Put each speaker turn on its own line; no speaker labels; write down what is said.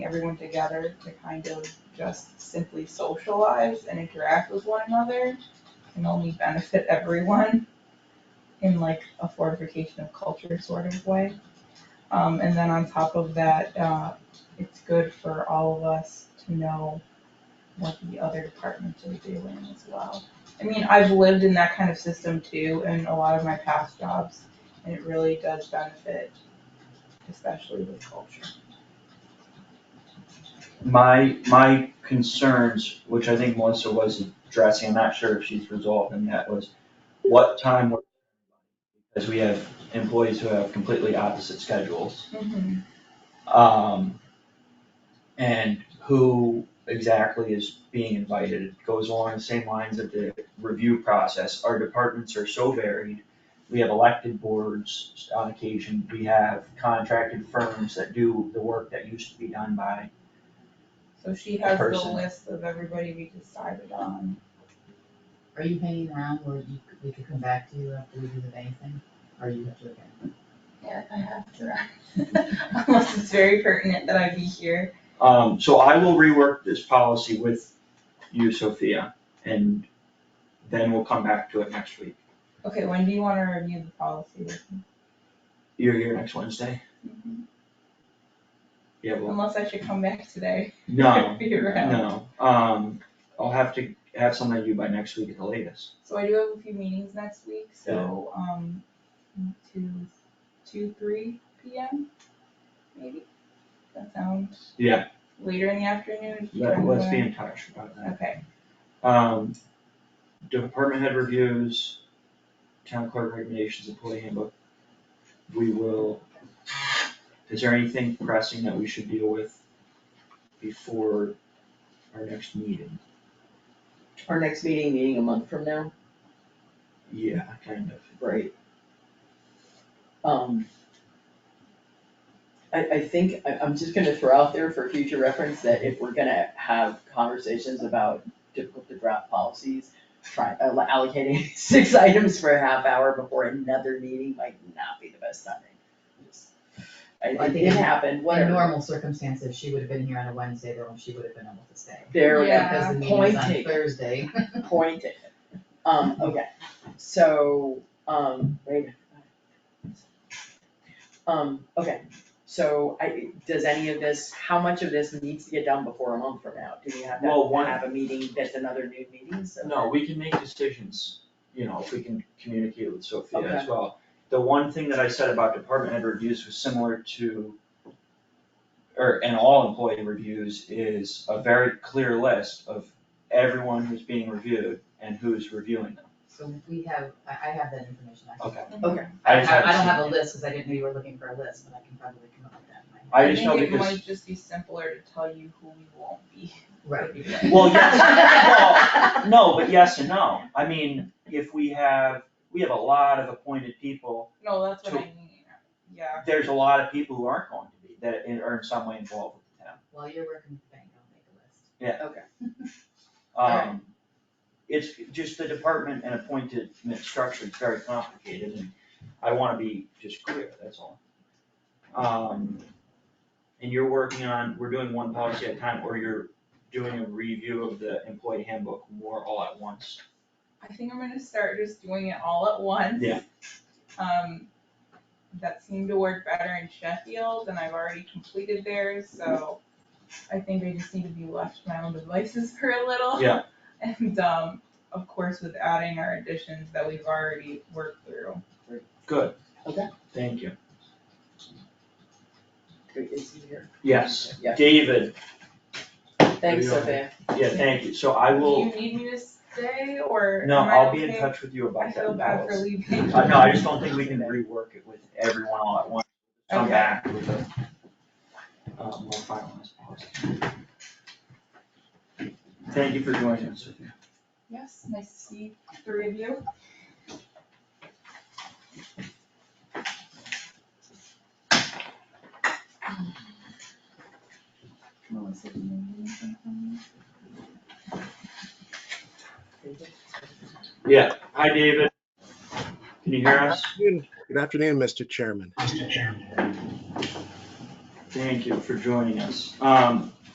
everyone together to kind of just simply socialize and interact with one another can only benefit everyone in like a fortification of culture sort of way. Um, and then on top of that, uh, it's good for all of us to know what the other departments are doing as well. I mean, I've lived in that kind of system too in a lot of my past jobs, and it really does benefit, especially with culture.
My, my concerns, which I think Melissa was addressing, I'm not sure if she's resolved, and that was what time we're. Because we have employees who have completely opposite schedules. Um, and who exactly is being invited, it goes along the same lines of the review process, our departments are so varied. We have elected boards on occasion, we have contracted firms that do the work that used to be done by.
So she has the
Person.
list of everybody we decided
um,
on.
Are you hanging around where you, we could come back to you after we do the bank thing, or you have to go?
Yeah, I have to. Unless it's very pertinent that I be here.
Um, so I will rework this policy with you, Sophia, and then we'll come back to it next week.
Okay, when do you wanna review the policy with me?
You're here next Wednesday?
Mm-hmm.
Yeah, well,
Unless I should come back today.
no,
Be around.
no, um, I'll have to have something to do by next week at the latest.
So I do have a few meetings next week, so, um, two, two, three P M, maybe? That sounds.
Yeah.
Later in the afternoon? if you
Let,
wanna-
let's be in touch about that.
Okay,
Um, department head reviews, town clerk recommendations, employee handbook. We will, is there anything pressing that we should deal with before our next meeting?
Our next meeting, meeting a month from now,
Yeah, kind of.
right? Um. I, I think, I, I'm just gonna throw out there for future reference that if we're gonna have conversations about difficult to draft policies, try, all- allocating six items for a half hour before another meeting might not be the best timing. Just- I,
I
it
think
did
in-
happen,
In
whatever,
normal circumstances, she would have been here on a Wednesday, but she would have been able to stay.
there,
Yeah.
Because the meeting
Point
was on
taken.
Thursday.
Point taken. Um, okay, so, um, wait. a minute. Um, okay, so I, does any of this, how much of this needs to get done before a month from now? Do we have
Well,
to
one-
have a meeting that's another new meeting, so?
No, we can make decisions, you know, if we can communicate with Sophia as
Okay.
well. The one thing that I said about department head reviews was similar to, or, and all employee reviews is a very clear list of everyone who's being reviewed and who's reviewing them.
So we have, I, I have that information, I can.
Okay.
Okay.
I just
I, I don't
haven't
have a
seen it.
list, cause I didn't know you were looking for a list, but I can probably come up with that in my head.
I just know
think it
because,
might just be simpler to tell you who we won't be.
Right,
well, yes, well, no, but yes and no. I mean, if we have, we have a lot of appointed people
No, that's what
So-
I mean, yeah.
there's a lot of people who aren't going to be, that are in some way involved with the town.
while you're working with the bank, I'll make a list.
Um, it's just the department and appointment structure is very complicated, and I wanna be just clear, that's all. Um, and you're working on, we're doing one policy at a time, or you're doing a review of the employee handbook more all at once?
I think I'm gonna start just doing it all at once.
Yeah.
Um, that seemed to work better in Sheffield and I've already completed theirs, so I think I just need to be left to my own devices for a little.
Yeah.
And, um, of course, with adding our additions that we've already worked through.
Good.
Okay.
Thank you.
Is he here?
Yes,
Yeah.
David,
Thanks,
Maybe I'll-
Sophia.
yeah, thank you, so I will,
Do you need me to stay or am
no,
I
I'll be in
okay?
touch with you
I
about that
feel bad for
policy.
leaving.
Uh, no, I just don't think we can rework it with everyone all at once, come
Okay.
back with a, uh, more finalized policy. Thank you for joining us. Sophia.
Yes, nice to see three of you. Melissa, do you need anything from me?
Yeah, hi, David. Can you hear us?
Good afternoon, Mr. Chairman.
Thank you for joining us. Um,